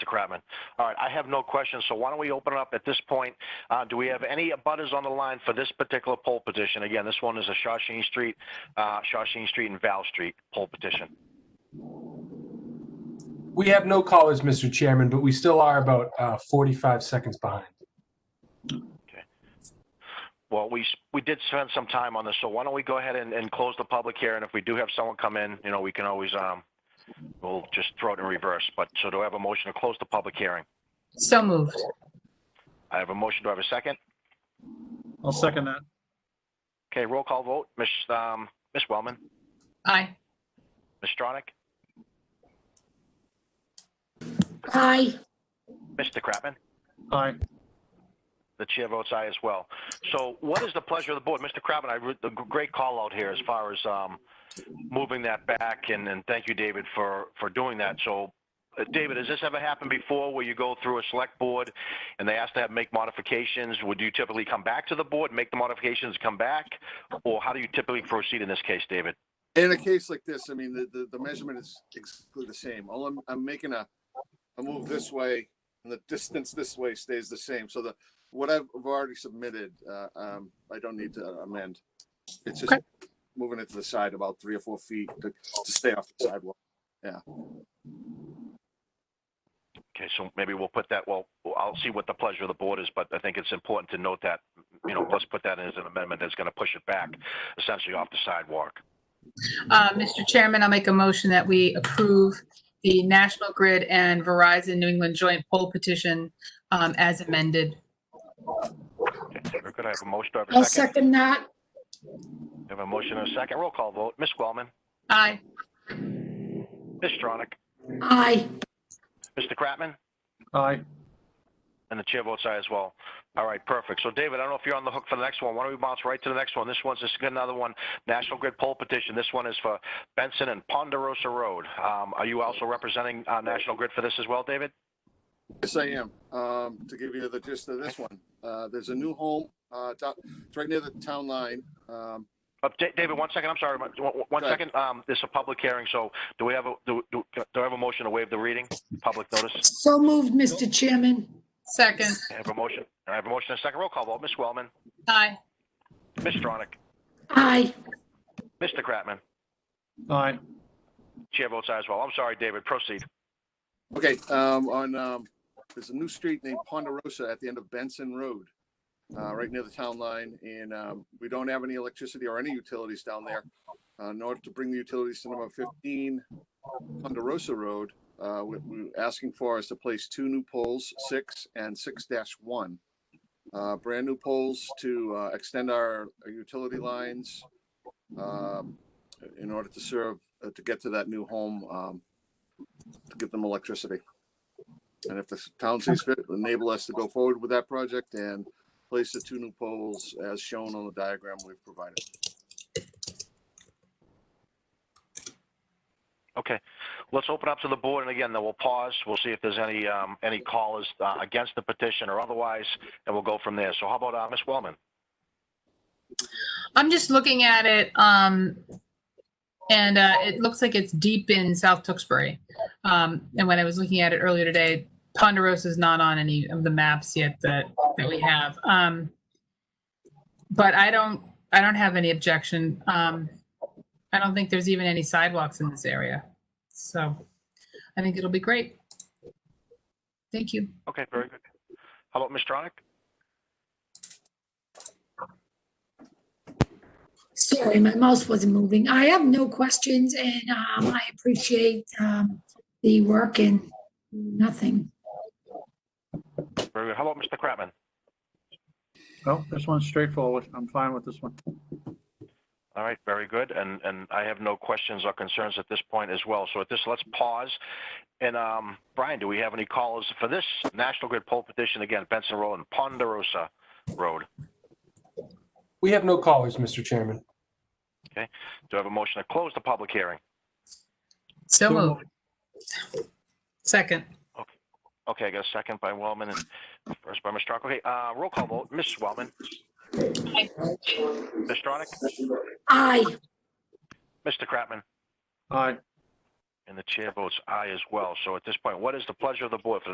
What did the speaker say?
Kratman. All right, I have no questions, so why don't we open it up at this point? Uh, do we have any abutters on the line for this particular poll petition? Again, this one is a Shawshene Street, uh, Shawshene Street and Val Street poll petition. We have no callers, Mr. Chairman, but we still are about uh, 45 seconds behind. Well, we, s- we did spend some time on this, so why don't we go ahead and, and close the public hearing? if we do have someone come in, you know, we can always, um, we'll just throw it in reverse, but, so do I have a motion to close the public hearing? So moved. I have a motion, do I have a second? I'll second that. Okay, roll call vote, Ms., um, Ms. Wellman, Aye. Ms. Stronach, Aye. Mr. Kratman? Aye. The chair votes aye as well. So what is the pleasure of the board? Mr. Kratman, I, re- a g- great call out here as far as, um, moving that back and, and thank you, David, for, for doing that. So, uh, David, has this ever happened before where you go through a select board and they ask to have, make modifications? Would you typically come back to the board, make the modifications, come back? Or how do you typically proceed in this case, David? In a case like this, I mean, the, the, the measurement is exactly the same. All I'm, I'm making a, a move this way and the distance this way stays the same. So the, what I've already submitted, uh, um, I don't need to amend. It's just Okay. moving it to the side about three or four feet to, to stay off the sidewalk. Okay, so maybe we'll put that, well, I'll see what the pleasure of the board is, but I think it's important to note that, you know, let's put that in as an amendment that's going to push it back essentially off the sidewalk. Uh, Mr. Chairman, I'll make a motion that we approve the National Grid and Verizon New England joint poll petition um, as amended. Very good. I have a motion. Do I I'll have a second? second that. I have a motion and a second. Roll call vote. Ms. Wellman, Aye. Ms. Stronach, Aye. Mr. Kratman, Aye. and the chair votes aye as well. All right, perfect. So David, I don't know if you're on the hook for the next one. Why don't we bounce right to the next one? This one's, this is another one, National Grid poll petition. This one is for Benson and Ponderosa Road. Um, are you also representing, uh, National Grid for this as well, David? Yes, I am. Um, to give you the gist of this one, uh, there's a new home, uh, top, it's right near the town line. Um, Uh, Da- David, one second. I'm sorry. One- one- One Go ahead. second. Um, this is a public hearing, so do we have a, do, do, do I have a motion to waive the reading? Public notice? So moved, Mr. Chairman. Second. I have a motion. I have a motion and a second. Roll call vote. Ms. Wellman, Aye. Ms. Stronach, Aye. Mr. Kratman. Aye. Chair votes aye as well. I'm sorry, David, proceed. Okay, um, on, um, there's a new street named Ponderosa at the end of Benson Road, uh, right near the town line, and, um, we don't have any electricity or any utilities down there. Uh, in order to bring the utilities to number fifteen Ponderosa Road, uh, what we're asking for is to place two new poles, six and six one. Uh, brand new poles to, uh, extend our utility lines, um, in order to serve, uh, to get to that new home, um, to give them electricity. And if the town sees fit, enable us to go forward with that project and place the two new poles as shown on the diagram we've provided. Okay, let's open up to the board, and again, then we'll pause. We'll see if there's any, um, any callers, uh, against the petition or otherwise, and we'll go from there. So how about, uh, Ms. Wellman? I'm just looking at it, um, and uh, it looks like it's deep in South Tewksbury. Um, and when I was looking at it earlier today, Ponderosa is not on any of the maps yet that that we have. Um, but I don't, I don't have any objection. Um, I don't think there's even any sidewalks in this area, so I think it'll be great. Thank you. Okay, very good. How about Ms. Stronach? Sorry, my mouse wasn't moving. I have no questions and um, I appreciate um, the work and nothing. Very good. How about Mr. Kratman? Well, this one's straightforward. I'm fine with this one. All right, very good. And, and I have no questions or concerns at this point as well. So at this, let's pause. And, um, Brian, do we have any callers for this National Grid poll petition? Again, Benson Road and Ponderosa Road. We have no callers, Mr. Chairman. Do I have a motion to close the public hearing? So moved. Second. Okay, I got a second by Wellman and first by Ms. Stronach. Okay, uh, roll call vote. Ms. Wellman? Aye. Ms. Stronach? Aye. Mr. Kratman? Aye. And the chair votes aye as well. So at this point, what is the pleasure of the board for the